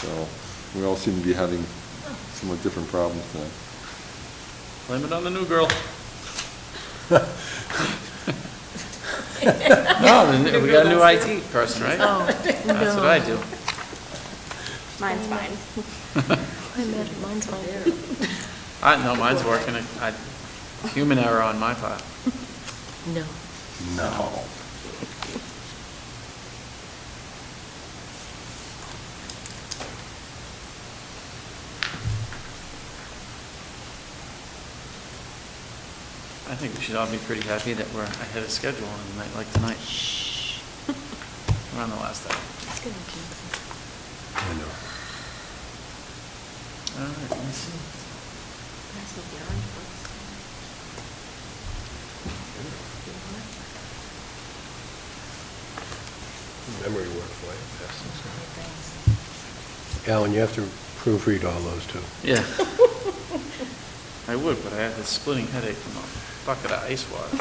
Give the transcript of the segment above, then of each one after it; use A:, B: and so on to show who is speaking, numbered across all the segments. A: So we all seem to be having somewhat different problems now.
B: Blame it on the new girl. No, the new- we got a new IT person, right?
C: Oh,
B: That's what I do.
D: Mine's fine.
C: I imagine mine's fine.
B: I, no, mine's working. I, human error on my part.
C: No.
A: No.
B: I think we should all be pretty happy that we're ahead of schedule on a night like tonight. We're on the last hour.
C: It's gonna jinx
A: I know.
B: All right, let me see.
C: us. That's what the orange book
E: Memory work for you.
C: said.
E: Alan, you have to proofread all those, too.
B: Yeah. I would, but I have this splitting headache from a bucket of ice water.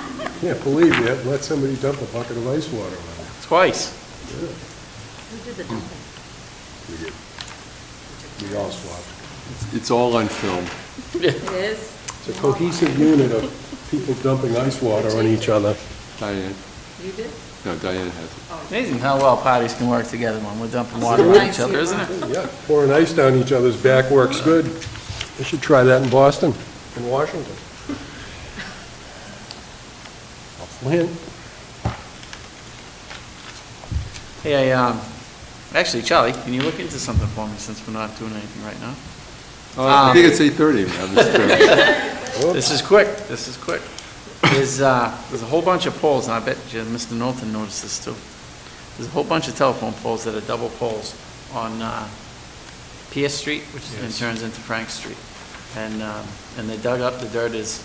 E: Yeah, believe me, I've let somebody dump a bucket of ice water on me.
B: Twice.
E: Yeah,
C: Who did the dumping?
E: We did. We all swapped.
A: It's- It's all on film.
C: It is.
E: It's a cohesive unit of people dumping ice water on each other.
A: Diane,
C: You did?
A: no, Diane has it.
B: Amazing how well parties can work together when we're dumping water on each other, isn't it?
E: Yeah, pouring ice down each other's back works good. They should try that in Boston and Washington. I'll plan.
B: Hey, I, um, actually, Charlie, can you look into something for me since we're not doing anything right now?
A: Uh, I think it's 8:30, Madam Secretary.
B: This is quick, this is quick. There's, uh, there's a whole bunch of poles, and I bet you Mr. Norton noticed this too. There's a whole bunch of telephone poles that are double poles on, uh, Pierce Street, which then turns into Frank Street. And, um, and they dug up, the dirt is,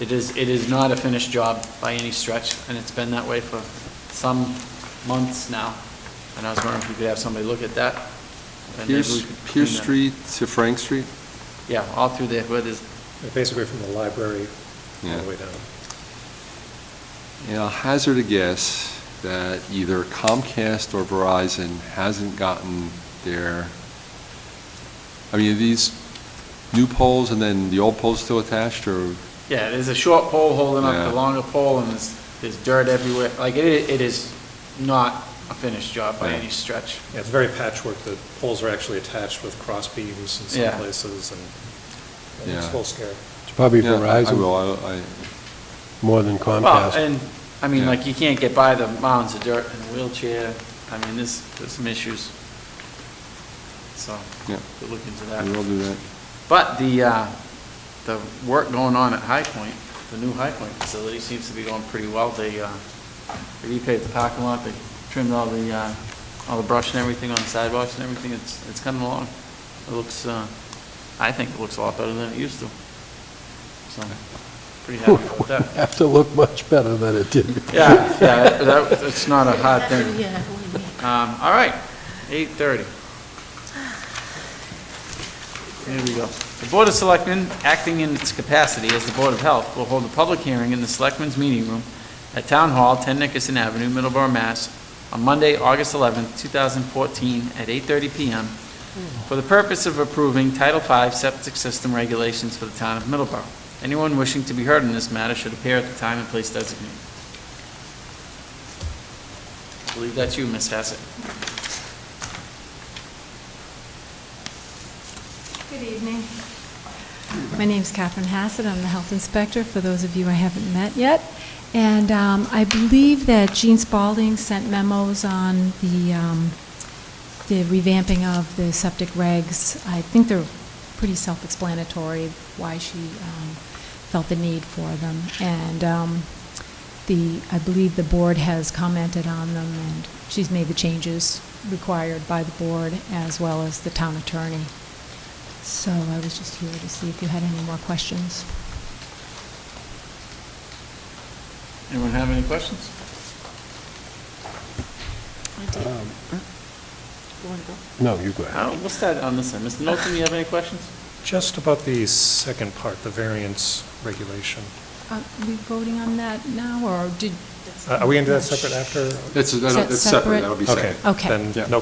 B: it is, it is not a finished job by any stretch, and it's been that way for some months now. And I was wondering if we could have somebody look at that. and maybe we
A: Pierce,
B: could clean
A: Pierce
B: that.
A: Street to Frank Street?
B: Yeah, all through there, where there's
E: Basically from the library
A: all the way
E: down.
A: And I'll hazard a guess that either Comcast or Verizon hasn't gotten their, I mean, are these new poles and then the old poles still attached, or?
B: Yeah, there's a short pole holding up
A: Yeah.
B: the longer pole, and there's, there's dirt everywhere. Like, it, it is not a finished job by
A: Yeah.
B: any stretch.
F: Yeah, it's very patchwork. The poles are actually attached with cross beams in
B: Yeah.
F: some places, and and
A: Yeah.
F: it's a little scary.
E: It's probably
A: Yeah, I- I
E: Verizon
A: will, I, I,
E: more than
B: Well,
E: Comcast.
B: and, I mean,
A: Yeah.
B: like, you can't get by the mounds of dirt in a wheelchair. I mean, there's, there's some issues. So,
A: Yeah.
B: we'll look into
A: I will
B: that.
A: do that.
B: But the, uh, the work going on at High Point, the new High Point facility seems to be going pretty well. They, uh, they repaved the parking lot, they trimmed all the, uh, all the brush and everything on the sidewalks and everything. It's, it's coming along. It looks, uh, I think it looks a lot better than it used to. So, pretty happy about that.
E: Have to look much better than it did.
B: Yeah, yeah, that, it's not a hard thing.
C: Yeah, what do you mean?
B: Um, all right, eight thirty. Here we go. The Board of Selectmen, acting in its capacity as the Board of Health, will hold a public hearing in the Selectmen's Meeting Room at Town Hall, 10 Nickerson Avenue, Middleborough, Mass, on Monday, August 11th, 2014, at 8:30 PM, for the purpose of approving Title V septic system regulations for the town of Middleborough. Anyone wishing to be heard in this matter should appear at the time and place designated. I believe that's you, Ms. Hassett.
G: Good evening. My name's Catherine Hassett. I'm the health inspector, for those of you I haven't met yet. And um, I believe that Gene Spalding sent memos on the, um, the revamping of the septic regs. I think they're pretty self-explanatory, why she um, felt the need for them. And um, the, I believe the board has commented on them, and she's made the changes required by the board, as well as the town attorney. So I was just here to see if you had any more questions.
B: Anyone have any questions?
C: I did.
E: Um,
C: You wanna go?
E: No, you go ahead.
B: Uh, We'll start on this end. Mr. Knowlton, you have any questions?
F: Just about the second part, the variance regulation.
G: Are Uh, we voting on that now, or did?
F: Uh, Are we into that separate after?
A: That's,
G: that
A: that's separate,
G: separate?
A: that'll be separate.
F: Okay.
G: Okay.
F: Then,
A: Yeah.
F: no